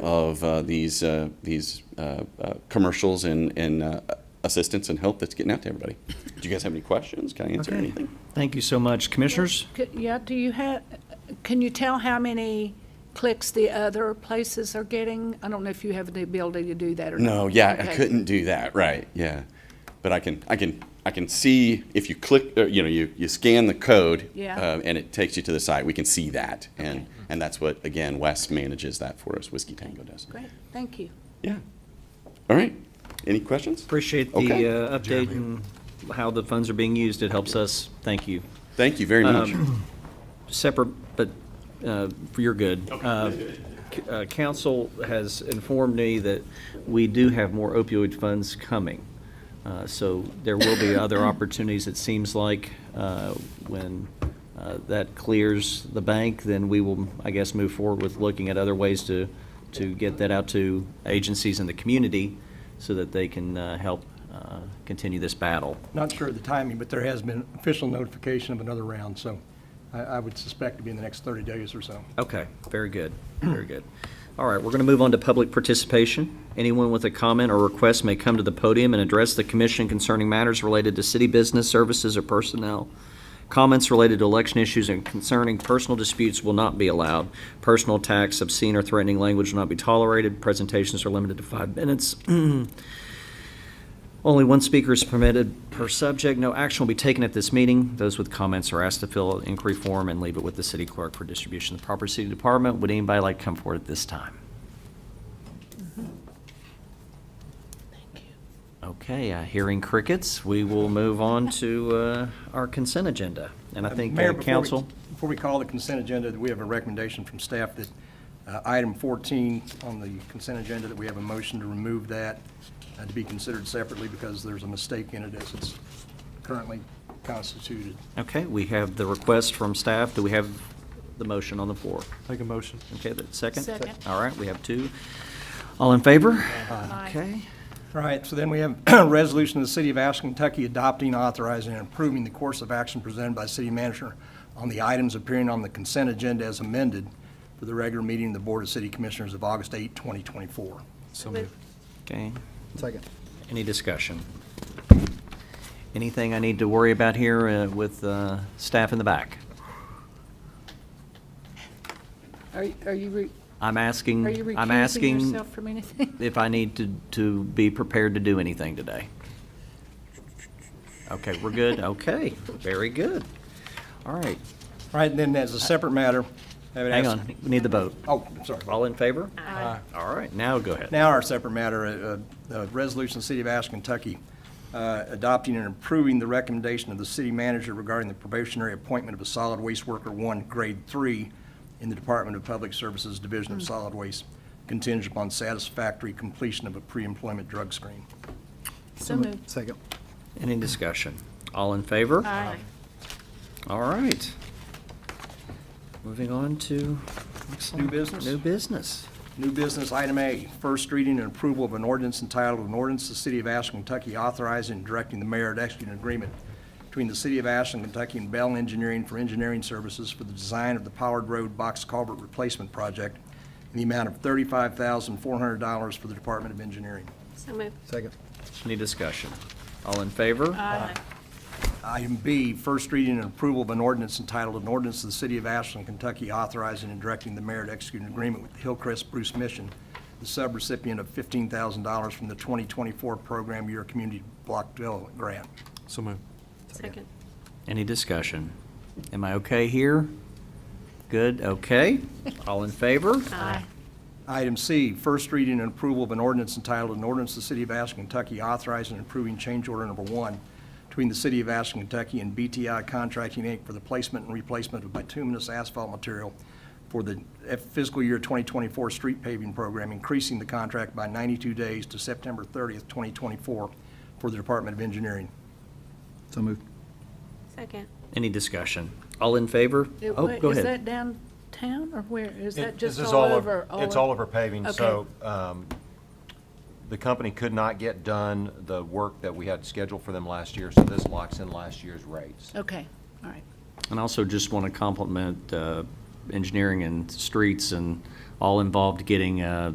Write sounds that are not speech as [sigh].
of uh, these, uh, these uh, uh, commercials and, and uh, assistance and help that's getting out to everybody. Do you guys have any questions? Can I answer Okay. anything? Thank you so much. Commissioners? C- Yeah, do you have, can you tell how many clicks the other places are getting? I don't know if you have the ability to do that or not. No, yeah, I Okay. couldn't do that, right, yeah. But I can, I can, I can see if you click, uh, you know, you, you scan the code. Yeah. uh, And it takes you to the site, we can see that. And, and that's what, again, Wes manages that for us, Whiskey Tango does. Great, thank you. Yeah. All right, any questions? Appreciate Okay. the uh, update and how the funds are being used. It helps us. Thank you. Thank you very much. Separate, but uh, for your good. Uh, c- uh, Council has informed me that we do have more opioid funds coming. Uh, So there will be other opportunities, it seems like. uh, When uh, that clears the bank, then we will, I guess, move forward with looking at other ways to, to get that out to agencies in the community so that they can uh, help uh, continue this battle. Not sure of the timing, but there has been official notification of another round, so I, I would suspect to be in the next 30 days or so. Okay, very good, very good. All right, we're going to move on to public participation. Anyone with a comment or request may come to the podium and address the commission concerning matters related to city business services or personnel. Comments related to election issues and concerning personal disputes will not be allowed. Personal attacks, obscene or threatening language will not be tolerated. Presentations are limited to five minutes. [clears throat] Only one speaker is permitted per subject. No action will be taken at this meeting. Those with comments are asked to fill out inquiry form and leave it with the city clerk for distribution to the proper city department. Would anybody like to come forward at this time? Okay, uh, hearing crickets, we will move on to uh, our consent agenda. And I think, Mayor, uh, before we- council, Before we call the consent agenda, we have a recommendation from staff that uh, item 14 on the consent agenda, that we have a motion to remove that uh, to be considered separately because there's a mistake in it as it's currently constituted. okay, we have the request from staff. Do we have the motion on the floor? Make a motion. Okay, that second? Second. All right, we have two. All in favor? Aye. Okay. All right, so then we have [clears throat] a resolution of the City of Ashland, Kentucky adopting, authorizing, and approving the course of action presented by city manager on the items appearing on the consent agenda as amended for the regular meeting of the Board of City Commissioners of August 8, 2024. So moved. Okay. Second. Any discussion? Anything I need to worry about here uh, with uh, staff in the back? Are are you, re- I'm are you asking, I'm recusing asking yourself from anything? [laughs] if I need to, to be prepared to do anything today. Okay, we're [laughs] good? Okay, very good. All right, All right, and then as a separate matter, I would hang ask- on, we need the vote. Oh, I'm sorry. All in favor? Aye. All right, now go ahead. Now our separate matter, uh, uh, the resolution of the City of Ashland, Kentucky, uh, adopting and approving the recommendation of the city manager regarding the probationary appointment of a solid waste worker one, grade three, in the Department of Public Services Division of Solid Waste, contingent upon satisfactory completion of a pre-employment drug screen. So moved. Second. Any discussion? All in favor? Aye. All right. Moving on to. New business? New business. New business, item A, first reading and approval of an ordinance entitled, an ordinance to the City of Ashland, Kentucky authorizing and directing the mayor to execute an agreement between the City of Ashland, Kentucky and Bell Engineering for engineering services for the design of the Powered Road Box Culvert Replacement Project in the amount of $35,400 for the Department of Engineering. So moved. Second. Any discussion? All in favor? Aye. Item B, first reading and approval of an ordinance entitled, an ordinance to the City of Ashland, Kentucky authorizing and directing the mayor to execute an agreement with Hillcrest Bruce Mission, the subrecipient of $15,000 from the 2024 Program Year Community Block Development Grant. So moved. Second. Any discussion? Am I okay here? Good, okay. All in favor? Aye. Item C, first reading and approval of an ordinance entitled, an ordinance to the City of Ashland, Kentucky authorizing and approving change order number one between the City of Ashland, Kentucky and BTI Contracting, Inc. for the placement and replacement of bituminous asphalt material for the fiscal year 2024 street paving program, increasing the contract by 92 days to September 30th, 2024, for the Department of Engineering. So moved. Second. Any discussion? All in favor? It- Oh, wait, go Is ahead. that downtown or where? Is It- that just this is all of- over? It's all over paving, Okay. so um, the company could not get done the work that we had scheduled for them last year, so this locks in last year's rates. Okay, all right. And also just want to compliment uh, engineering and streets and all involved getting uh,